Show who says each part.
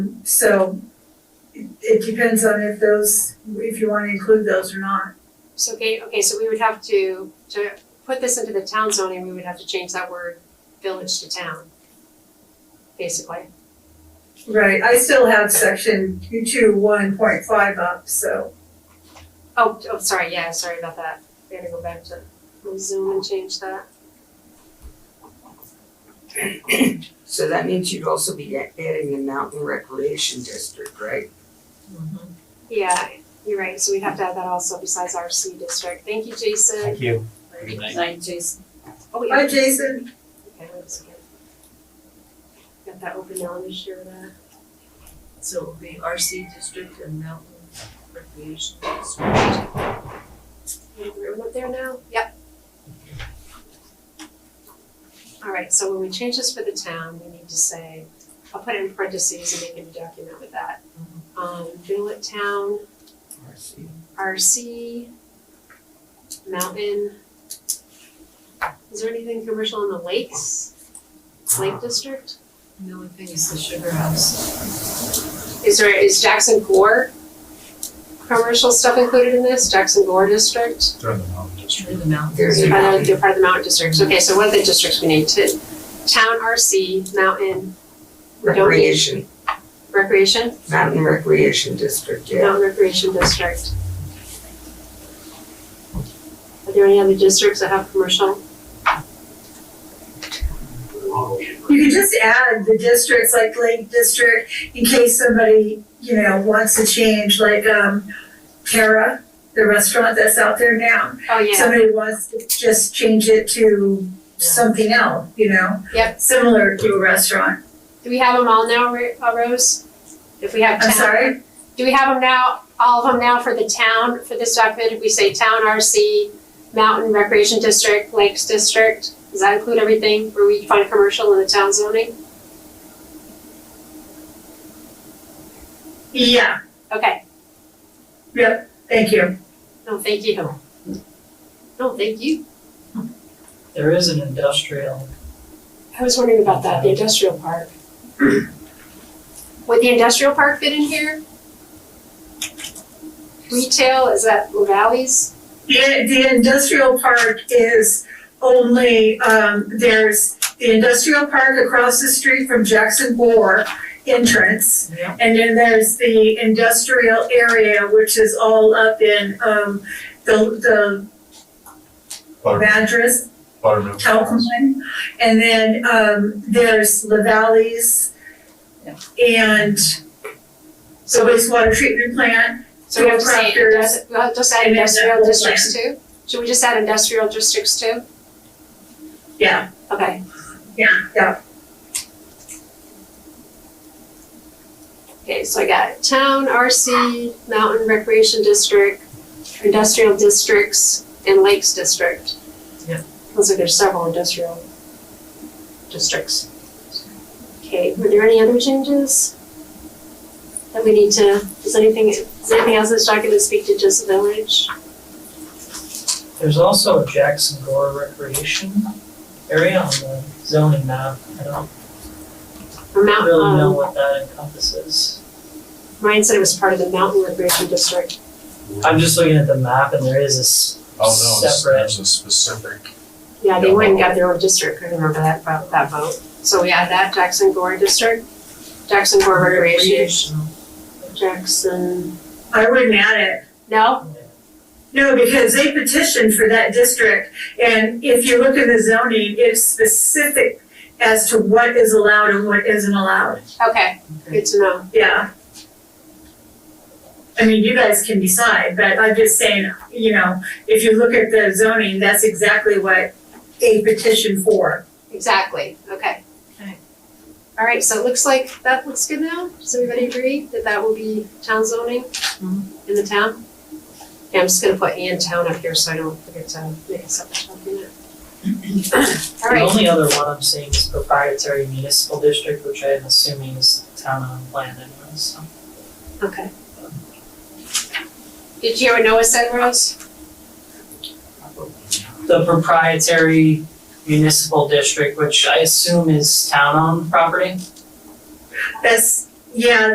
Speaker 1: So it- it depends on if those, if you wanna include those or not.
Speaker 2: So, okay, okay, so we would have to, to put this into the town zoning, we would have to change that word village to town. Basically,
Speaker 1: Right, I still have section two one point five up, so
Speaker 2: oh, oh, sorry, yeah, sorry about that, we had to go back to we'll zoom and change that.
Speaker 3: So that means you'd also be a- adding the mountain recreation district, right?
Speaker 2: Yeah, you're right, so we'd have to add that also besides our C district, thank you, Jason.
Speaker 4: Thank you.
Speaker 5: Good night.
Speaker 6: Jason.
Speaker 2: Oh, wait,
Speaker 1: hi Jason,
Speaker 2: okay, wait a second. Got that open now, let me share that,
Speaker 6: So it'll be RC district and mountain recreation district.
Speaker 2: we're up there now, yep. Alright, so when we change this for the town, we need to say, I'll put it in parentheses and make a new document with that. Um, Village Town,
Speaker 3: RC.
Speaker 2: RC, mountain. Is there anything commercial in the lakes? Lake district?
Speaker 6: The only thing is the sugar house.
Speaker 2: Is there, is Jackson Gore commercial stuff included in this, Jackson Gore district?
Speaker 4: Turn them on.
Speaker 6: It's in the mountains.
Speaker 3: There's
Speaker 2: They're
Speaker 3: a
Speaker 2: part of,
Speaker 3: mountain.
Speaker 2: they're part of the mountain districts,
Speaker 6: Mm-hmm.
Speaker 2: okay, so what are the districts we need to, town RC, mountain
Speaker 3: Recreation,
Speaker 2: recreation,
Speaker 3: mountain recreation district, yeah.
Speaker 2: mountain recreation district? Are there any other districts that have commercial?
Speaker 1: you can just add the districts like Lake District in case somebody, you know, wants to change like um Tara, the restaurant that's out there now.
Speaker 2: Oh, yeah,
Speaker 1: Somebody wants to just change it to something else, you know?
Speaker 2: Yep.
Speaker 1: Similar to a restaurant.
Speaker 2: do we have them all now, Ro- uh, Rose? If we have town.
Speaker 1: I'm sorry,
Speaker 2: Do we have them now, all of them now for the town, for this document, if we say town RC, mountain recreation district, lakes district, does that include everything where we find commercial in the town zoning?
Speaker 1: yeah,
Speaker 2: Okay,
Speaker 1: thank you.
Speaker 2: no, thank you. No, thank you.
Speaker 5: There is an industrial,
Speaker 2: I was wondering about that, the industrial park. Would the industrial park fit in here? Retail, is that Lavalley's?
Speaker 1: The, the industrial park is only, um, there's the industrial park across the street from Jackson Bore entrance.
Speaker 5: Yeah.
Speaker 1: And then there's the industrial area, which is all up in, um, the, the
Speaker 4: Butter-
Speaker 1: Madras,
Speaker 4: Buttermilk.
Speaker 1: Calhoun. And then, um, there's La Valleys and the
Speaker 2: So, we-
Speaker 1: wastewater treatment plant.
Speaker 2: so we have to say,
Speaker 1: Crafters.
Speaker 2: indus- we'll just add
Speaker 1: And then
Speaker 2: industrial
Speaker 1: that
Speaker 2: districts too? Should we just add industrial districts too?
Speaker 1: Yeah.
Speaker 2: Okay.
Speaker 1: Yeah,
Speaker 2: Okay, so I got town, RC, mountain recreation district, industrial districts, and lakes district.
Speaker 5: Yeah.
Speaker 2: Looks like there's several industrial districts. Okay, were there any other changes? That we need to, is anything, is anything else in this document speak to just village?
Speaker 5: there's also a Jackson Gore recreation area on the zoning map. I don't
Speaker 2: Or mountain,
Speaker 5: really know
Speaker 2: um,
Speaker 5: what that encompasses.
Speaker 2: Ryan said it was part of the mountain recreation district.
Speaker 5: I'm just looking at the map and there is this,
Speaker 4: Oh, no, it's-
Speaker 5: Separate.
Speaker 4: there's a specific.
Speaker 2: Yeah, they went and got their own district, I remember that, vo- that vote. So we add that, Jackson Gore district, Jackson Gore recreation, Jackson.
Speaker 1: I wouldn't add it.
Speaker 2: No?
Speaker 1: No, because they petitioned for that district, and if you look at the zoning, it's specific as to what is allowed and what isn't allowed,
Speaker 2: Okay, good to know.
Speaker 1: yeah. I mean, you guys can decide, but I'm just saying, you know, if you look at the zoning, that's exactly what they petitioned for.
Speaker 2: Exactly, okay.
Speaker 6: Okay.
Speaker 2: All right, so it looks like that looks good now. Does everybody agree that that will be town zoning in the town? Yeah, I'm just gonna put and town up here so I don't forget to make a separate document. All
Speaker 5: the
Speaker 2: right,
Speaker 5: only other one I'm seeing is proprietary municipal district, which I'm assuming is town owned land anyway, so.
Speaker 2: okay. Did you hear what Noah said, Rose?
Speaker 5: The proprietary municipal district, which I assume is town owned property.
Speaker 1: That's, yeah,